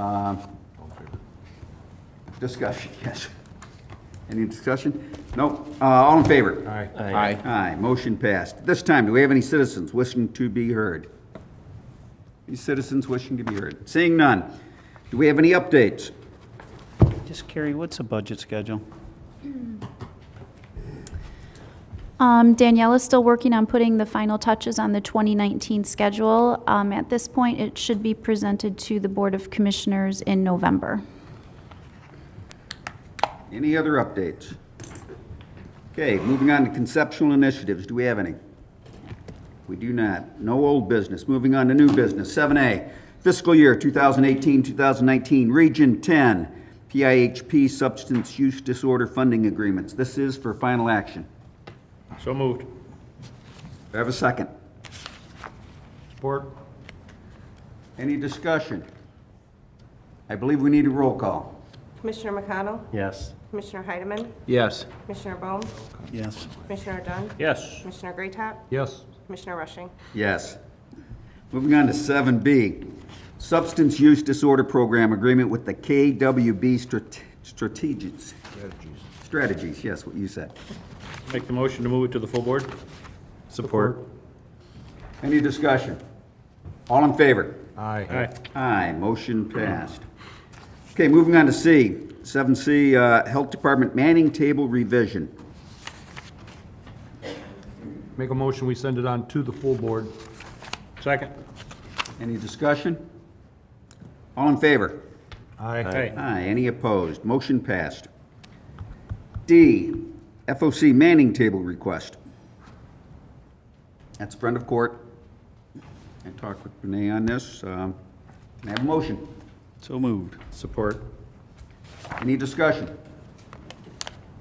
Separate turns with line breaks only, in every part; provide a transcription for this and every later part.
Um, Discussion, yes. Any discussion? No. Uh, All in favor?
Aye.
Aye.
Aye, motion passed. This time, do we have any citizens wishing to be heard? Any citizens wishing to be heard? Seeing none. Do we have any updates?
Just Carrie, what's the budget schedule?
Um, Danielle is still working on putting the final touches on the 2019 schedule. Um, At this point, it should be presented to the Board of Commissioners in November.
Any other updates? Okay, moving on to conceptual initiatives. Do we have any? We do not. No old business. Moving on to new business. 7A, fiscal year 2018-2019, Region 10, PIHP Substance Use Disorder Funding Agreements. This is for final action.
So moved.
Do I have a second?
Support?
Any discussion? I believe we need a roll call.
Commissioner McConnell,
Yes.
Commissioner Heidemann,
Yes.
Commissioner Bohm,
Yes.
Commissioner Dunn,
Yes.
Commissioner Graytop,
Yes.
Commissioner Rushing.
Yes. Moving on to seven B, Substance Use Disorder Program Agreement with the KWB Strate- Strategies. Strategies, yes, what you said.
Make the motion to move it to the full board?
Support?
Any discussion? All in favor?
Aye.
Aye, motion passed. Okay, moving on to C, seven C, uh, Health Department Manning Table Revision.
Make a motion, we send it on to the full board.
Second?
Any discussion? All in favor?
Aye.
Aye, any opposed? Motion passed. D, FOC Manning Table Request. That's a friend of court. I talked with Renee on this. Um, Can I have a motion?
So moved.
Support?
Any discussion?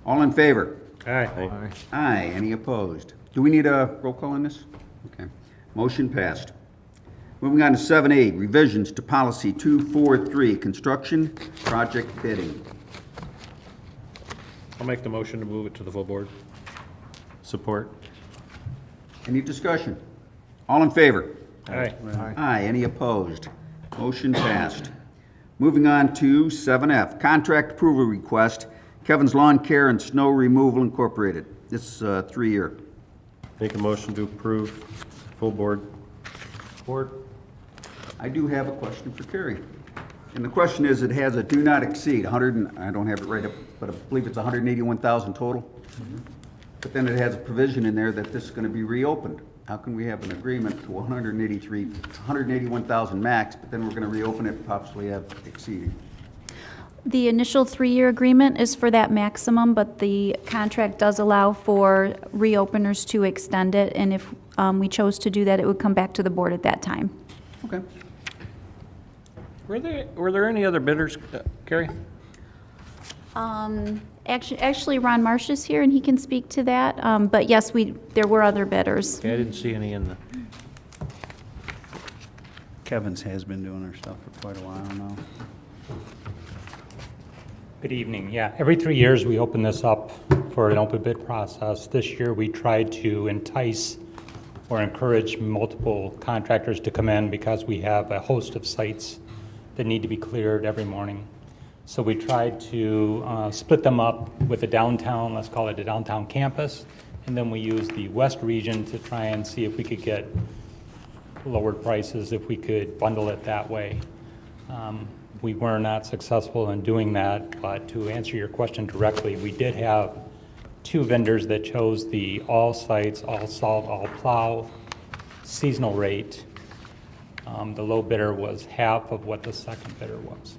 All in favor?
Aye.
Aye.
Aye, any opposed? Do we need a roll call on this? Okay, motion passed. Moving on to 7A, revisions to policy 243, construction project bidding.
I'll make the motion to move it to the full board.
Support?
Any discussion? All in favor?
Aye.
Aye, any opposed? Motion passed. Moving on to 7F, contract approval request, Kevin's Lawn Care and Snow Removal Incorporated. This is uh, three-year.
Make a motion to approve, full board. Support?
I do have a question for Carrie. And the question is, it has a do not exceed 100, and I don't have it right up, but I believe it's 181,000 total. But then it has a provision in there that this is going to be reopened. How can we have an agreement to 183, 181,000 max, but then we're going to reopen it, possibly have exceeding?
The initial three-year agreement is for that maximum, but the contract does allow for reopeners to extend it, and if um, we chose to do that, it would come back to the board at that time.
Okay.
Were there, were there any other bidders, uh, Carrie?
Um, Actually, actually, Ron Marsh is here, and he can speak to that, Um, but yes, we, there were other bidders.
Okay, I didn't see any in the,
Kevin's has been doing her stuff for quite a while now.
Good evening. Yeah, every three years, we open this up for an open bid process. This year, we tried to entice or encourage multiple contractors to come in because we have a host of sites that need to be cleared every morning. So we tried to uh, split them up with the downtown, let's call it the downtown campus, and then we used the west region to try and see if we could get lowered prices if we could bundle it that way. Um, We were not successful in doing that, but to answer your question directly, we did have two vendors that chose the all sites, all salt, all plow seasonal rate. Um, The low bidder was half of what the second bidder was.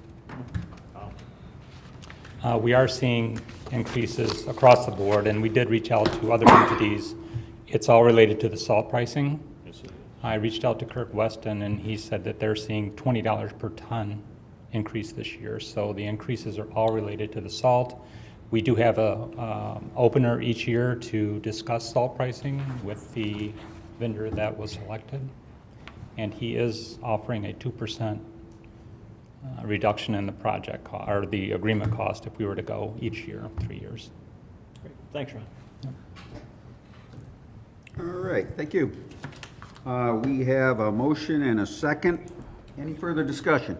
Uh, We are seeing increases across the board, and we did reach out to other entities. It's all related to the salt pricing. I reached out to Kirk Weston, and he said that they're seeing $20 per ton increase this year. So the increases are all related to the salt. We do have a um, opener each year to discuss salt pricing with the vendor that was selected. And he is offering a 2% uh, reduction in the project, co- or the agreement cost if we were to go each year, three years.
Thanks, Ron.
All right, thank you. Uh, We have a motion and a second. Any further discussion?